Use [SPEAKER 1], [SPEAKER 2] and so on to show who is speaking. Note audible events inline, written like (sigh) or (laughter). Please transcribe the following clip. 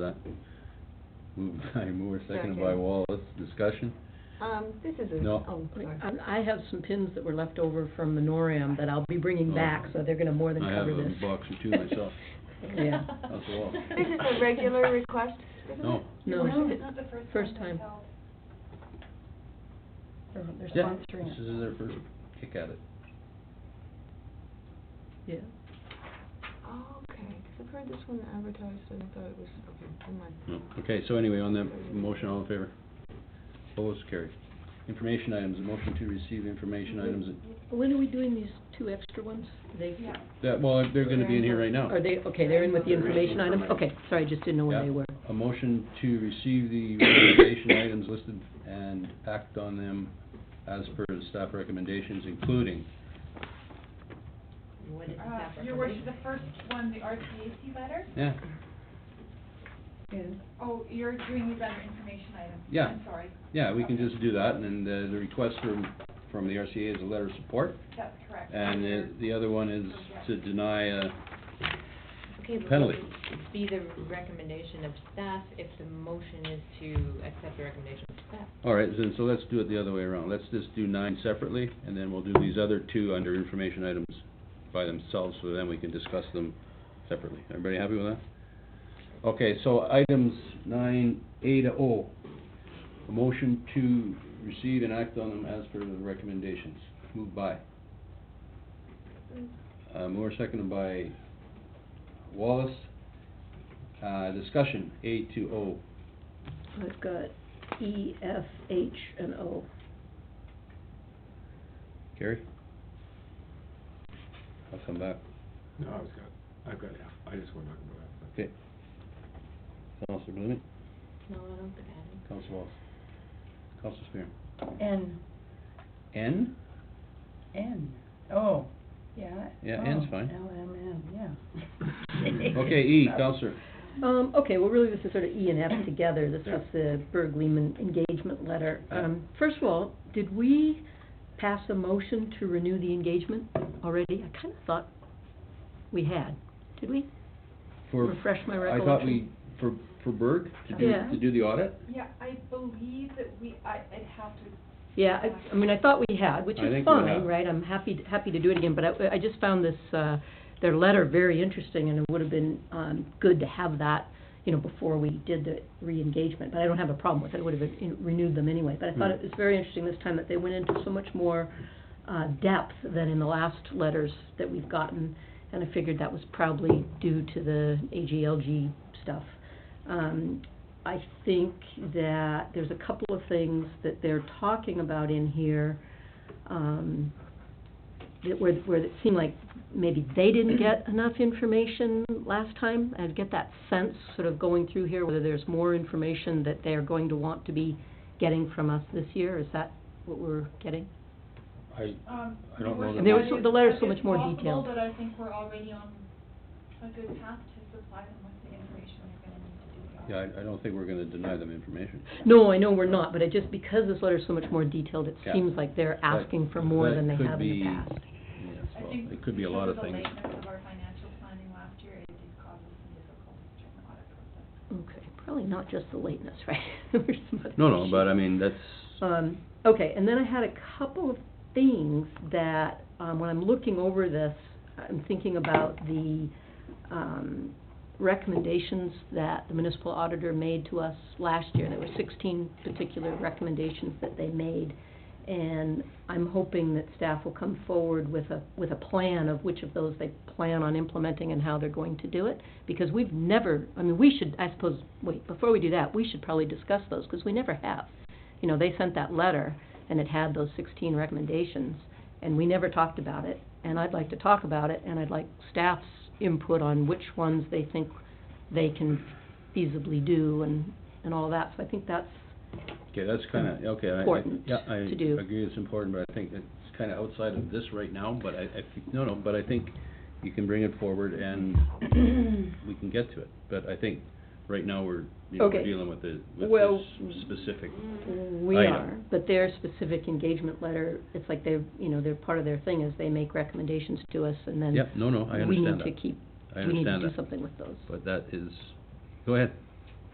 [SPEAKER 1] That, moved (laughs) by Moore, seconded by
[SPEAKER 2] Second.
[SPEAKER 1] Wallace, discussion?
[SPEAKER 2] Um, this is a...
[SPEAKER 1] No.
[SPEAKER 2] Oh, sorry.
[SPEAKER 3] Um, I have some pins that were left over from Menoram that I'll be bringing back, so they're gonna more than
[SPEAKER 1] Oh. I have
[SPEAKER 3] cover
[SPEAKER 1] a
[SPEAKER 3] this.
[SPEAKER 1] box or two myself.
[SPEAKER 3] (laughs) Yeah.
[SPEAKER 1] That's a lot.
[SPEAKER 2] This is a regular request, isn't
[SPEAKER 1] No.
[SPEAKER 2] it?
[SPEAKER 3] No.
[SPEAKER 4] No, it's not the
[SPEAKER 3] First
[SPEAKER 4] first
[SPEAKER 3] time.
[SPEAKER 4] time they've held. They're they're
[SPEAKER 1] Yeah,
[SPEAKER 4] sponsoring
[SPEAKER 1] This
[SPEAKER 4] it.
[SPEAKER 1] is their first kick at it.
[SPEAKER 3] Yeah.
[SPEAKER 2] Oh, okay, 'cause I've heard this one advertised and I thought it was, okay, never mind.
[SPEAKER 1] No. Okay, so anyway, on that motion, all in favor? Opposed, carried. Information items, a motion to receive information items.
[SPEAKER 3] When are we doing these two extra ones? They,
[SPEAKER 4] Yeah.
[SPEAKER 1] That, well, they're gonna be in here right now.
[SPEAKER 3] are they, okay, they're in with the
[SPEAKER 1] They're in with
[SPEAKER 3] information items?
[SPEAKER 1] Oh. information.
[SPEAKER 3] Okay, sorry, just didn't know
[SPEAKER 1] Yeah.
[SPEAKER 3] where they were.
[SPEAKER 1] A motion to receive the recommendation items listed and act on them as per the staff recommendations, including
[SPEAKER 5] What is the
[SPEAKER 4] Uh,
[SPEAKER 5] staff
[SPEAKER 4] Your worship, the
[SPEAKER 5] recommendation?
[SPEAKER 4] first one, the RCAC letter?
[SPEAKER 1] Yeah,
[SPEAKER 4] Is, oh, you're doing these other information items?
[SPEAKER 1] Yeah.
[SPEAKER 4] I'm sorry.
[SPEAKER 1] yeah, we can just do that, and then the, the request from, from the RCA is a letter of support,
[SPEAKER 4] That's correct.
[SPEAKER 1] and the, the other one is to deny a,
[SPEAKER 5] Okay, but
[SPEAKER 1] penalty.
[SPEAKER 5] would it be the recommendation of staff if the motion is to accept the recommendation of staff?
[SPEAKER 1] all right, then, so let's do it the other way around. Let's just do nine separately, and then we'll do these other two under information items by themselves, so then we can discuss them separately. Everybody happy with that? Okay, so items nine A to O, a motion to receive and act on them as per the recommendations. Moved by. Uh, Moore, seconded by Wallace. Uh, discussion, A to O.
[SPEAKER 3] I've got E, F, H, and O.
[SPEAKER 1] Gary? I'll come back.
[SPEAKER 6] No, I was got, I've got F, I just went on to F.
[SPEAKER 1] Okay. Counselor Blumen?
[SPEAKER 5] No, I don't think I
[SPEAKER 1] Counselor Wallace? Counselor Spear?
[SPEAKER 4] N,
[SPEAKER 1] N?
[SPEAKER 4] N, oh, yeah.
[SPEAKER 1] Yeah,
[SPEAKER 3] Oh,
[SPEAKER 1] N's fine.
[SPEAKER 4] L, M, N,
[SPEAKER 1] (laughs)
[SPEAKER 4] yeah.
[SPEAKER 3] (laughs)
[SPEAKER 1] Okay, E, Counselor.
[SPEAKER 3] Um, okay, well, really, this is sort of E
[SPEAKER 1] (coughs)
[SPEAKER 3] and F together. This
[SPEAKER 1] Yeah.
[SPEAKER 3] was the Berg Lehman engagement letter.
[SPEAKER 1] Yeah.
[SPEAKER 3] Um, first of all, did we pass a motion to renew the engagement already? I kind of thought we had. Did we?
[SPEAKER 1] For-
[SPEAKER 3] Refresh my
[SPEAKER 1] I thought we,
[SPEAKER 3] recollection.
[SPEAKER 1] for, for Berg, to do,
[SPEAKER 3] Yeah.
[SPEAKER 1] to do the audit?
[SPEAKER 4] Yeah, I believe that we, I, I'd have to
[SPEAKER 3] Yeah, I, I mean, I thought we had, which
[SPEAKER 1] I
[SPEAKER 3] is
[SPEAKER 1] think we
[SPEAKER 3] fine,
[SPEAKER 1] have.
[SPEAKER 3] right? I'm happy, happy to do it again, but I, I just found this, uh, their letter very interesting, and it would have been, um, good to have that, you know, before we did the re-engagement, but I don't have a problem with it, I would have you know, renewed them anyway. But I thought it
[SPEAKER 1] Hmm.
[SPEAKER 3] was very interesting this time that they went into so much more, uh, depth than in the last letters that we've gotten, and I figured that was probably due to the AGLG stuff. Um, I think that there's a couple of things that they're talking about in here, um, that where, where it seemed like maybe they didn't get enough information last time. I get that sense, sort of going through here, whether there's more information that they're going to want to be getting from us this year. Is that what we're getting?
[SPEAKER 1] I,
[SPEAKER 4] Um,
[SPEAKER 1] I don't know
[SPEAKER 4] we're
[SPEAKER 1] that There was-
[SPEAKER 4] supposed
[SPEAKER 3] the
[SPEAKER 4] to-
[SPEAKER 3] letter's so
[SPEAKER 4] it's
[SPEAKER 3] much more
[SPEAKER 4] possible,
[SPEAKER 3] detailed.
[SPEAKER 4] But I think we're already on a good path to supply them with the information they're gonna need to do. the
[SPEAKER 1] yeah,
[SPEAKER 4] audit.
[SPEAKER 1] I, I don't think we're gonna deny them information.
[SPEAKER 3] No, I know we're not, but it just, because this letter's so much more detailed, it
[SPEAKER 1] Yeah.
[SPEAKER 3] seems like they're asking for more than they have in the past.
[SPEAKER 1] Yes,
[SPEAKER 4] I
[SPEAKER 1] well,
[SPEAKER 4] think
[SPEAKER 1] it could be a lot of things.
[SPEAKER 4] Because of the lateness of our financial planning last year, it did cause us some difficulties during the audit process.
[SPEAKER 3] Okay, probably not just the lateness, (laughs) right? There were some other
[SPEAKER 1] No, no, but I
[SPEAKER 3] issues.
[SPEAKER 1] mean, that's,
[SPEAKER 3] Um, okay, and then I had a couple of things that, um, when I'm looking over this, I'm thinking about the, um, recommendations that the municipal auditor made to us last year. There were sixteen particular recommendations that they made. And I'm hoping that staff will come forward with a, with a plan of which of those they plan on implementing and how they're going to do it. Because we've never, I mean, we should, I suppose, wait, before we do that, we should probably discuss those, because we never have you know, they sent that letter and it had those sixteen recommendations and we never talked about it. And I'd like to talk about it and I'd like staff's input on which ones they think they can feasibly do and, and all that. So I think that's,
[SPEAKER 1] okay, that's kinda, okay, I, I,
[SPEAKER 3] Important
[SPEAKER 1] yeah, I
[SPEAKER 3] to do.
[SPEAKER 1] agree it's important, but I think it's kinda outside of this right now, but I, I think, no, no, but I think you can bring it forward
[SPEAKER 3] (coughs)
[SPEAKER 1] and we can get to it, but I think right now we're, you know, we're
[SPEAKER 3] Okay.
[SPEAKER 1] dealing with the, with
[SPEAKER 3] Well,
[SPEAKER 1] this specific.
[SPEAKER 3] we
[SPEAKER 1] I know.
[SPEAKER 3] are. But their specific engagement letter, it's like they're, you know, they're, part of their thing is they make recommendations to us and then
[SPEAKER 1] Yep, no, no, I
[SPEAKER 3] we need
[SPEAKER 1] understand
[SPEAKER 3] to
[SPEAKER 1] that,
[SPEAKER 3] keep,
[SPEAKER 1] I
[SPEAKER 3] we need to
[SPEAKER 1] understand
[SPEAKER 3] do
[SPEAKER 1] that,
[SPEAKER 3] something with those.
[SPEAKER 1] but that is, go ahead,